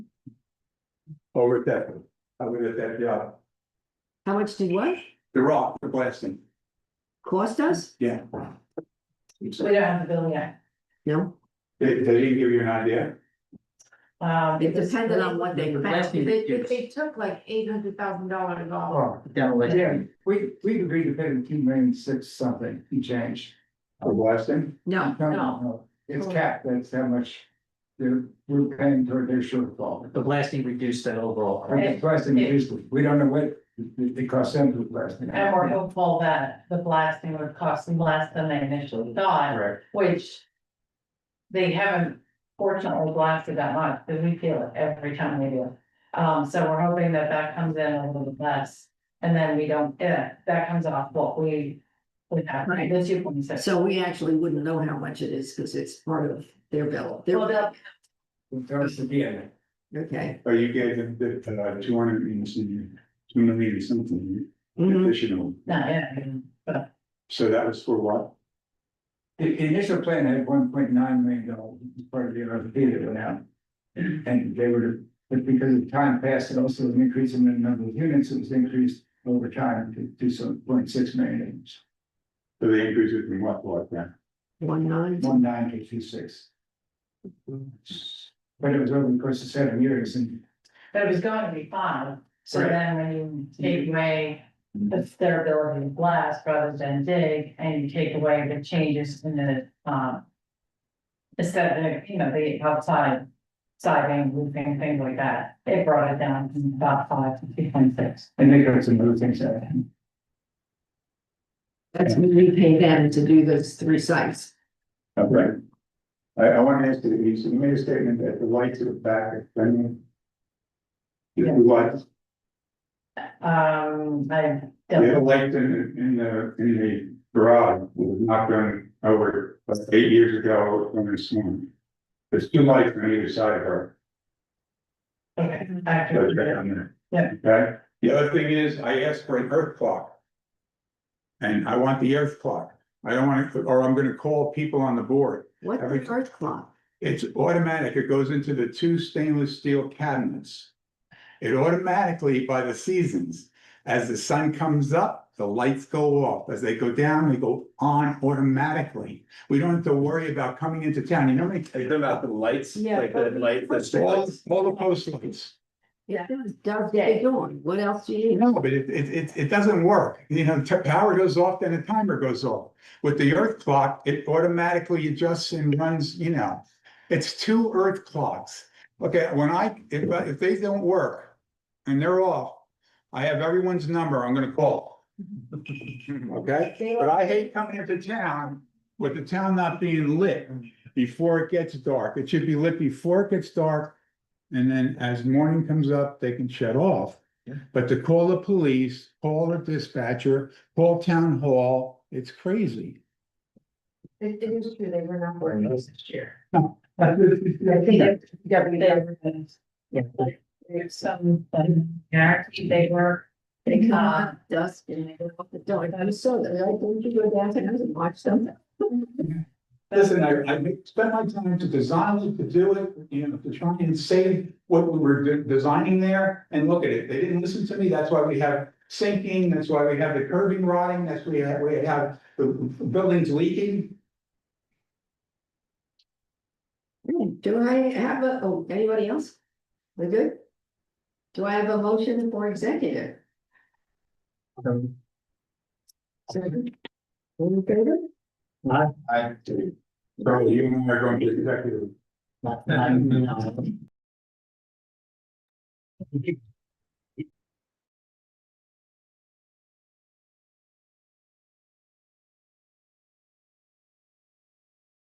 over at that, I was at that job, How much did what the rock, the blasting, cost us? yeah. We don't have the bill yet. No, They, they didn't give you an idea, Um, it it's- depended on what they found. Blasting. They, they, they took like eight hundred thousand dollars off. Oh, demolition. Yeah, we, we agreed to pay them two million six something and change. the blasting, No, It's capped, that's how much they're, we're paying toward their shortfall. The blasting reduced that overall. Or the blasting usually, we don't know what it, it costs them to blast. and we're hopeful that the blasting would cost them less than they initially thought, Correct. which. They haven't fortunately blasted that much, because we feel it every time we do. it. Um, so we're hoping that that comes in a little bit less, and then we don't, yeah, that comes off what we. We have, Right. the two point six. so we actually wouldn't know how much it is because it's part of their bill. Well, Their- they'll- It tells us again, Okay. or you gave them the, uh, two hundred and some, two million something Mm-hmm. Mm-hmm. Mhm. additional, no, yeah, so that was for what? the, the initial plan had one point nine million dollars as part of the RFP that went out. And they were, but because of time passed, it also was an increase in the number of units, it was increased over time to, to some point six million. So they increased it from what, what, then? One nine, one nine eight two six. But it was over the course of seven years and but it was going to be five, so Right. then when you take away. It's their ability to blast rather than dig, and you take away the changes in the, um. Instead, you know, the outside siding, roofing, things like that, it brought it down from about five to three point six. and they got some other things out of it. that's when we pay them to do those three sites. Okay. I, I want to ask you, you made a statement that the lights at the back of Fenway. The Yeah. lights, Um, I the don't, other lights in, in the, in the garage was not done over about eight years ago when it stormed. There's two lights on either side of her. okay, so it's right I, on there. Yeah. Okay, the other thing is, I asked for an earth clock. And I want the earth clock, I don't want to, or I'm gonna call people on the board. What's Every- the earth clock? It's automatic, it goes into the two stainless steel cabinets. It automatically by the seasons, as the sun comes up, the lights go off, as they go down, they go on automatically. We don't have to worry about coming into town, you know, how many- Are you talking about the lights, Yeah, like the but- light, the all, streetlights? all the post lights. It does day dawn, what else do you No, know? but it, it, it, it doesn't work, you know, t- power goes off, then a timer goes off. With the earth clock, it automatically adjusts and runs, you know, it's two earth clocks. Okay, when I, if, I- if they don't work and they're off, I have everyone's number, I'm gonna call. Okay, but I hate coming into town with the town not being lit before it gets dark, it should be lit before it gets dark. And then as morning comes up, they can shut off. But to call the police, call the dispatcher, call town hall, it's crazy. It, it is true, they were not working this year. Yeah. there's some, um, guarantee they were. They come Uh, out dusk and they go off the door, and I was so, I told you go downstairs and watch them. Listen, I, I spent my time to design it, to do it, you know, to try and save what we were de- designing there. And look at it, they didn't listen to me, that's why we have sinking, that's why we have the curving rotting, that's why we have, we have the buildings leaking. Do I have a, oh, anybody else? We good? Do I have a motion for executive? Um, Second? All in favor? I do. So you and I are going to uh, executive. not- not- no.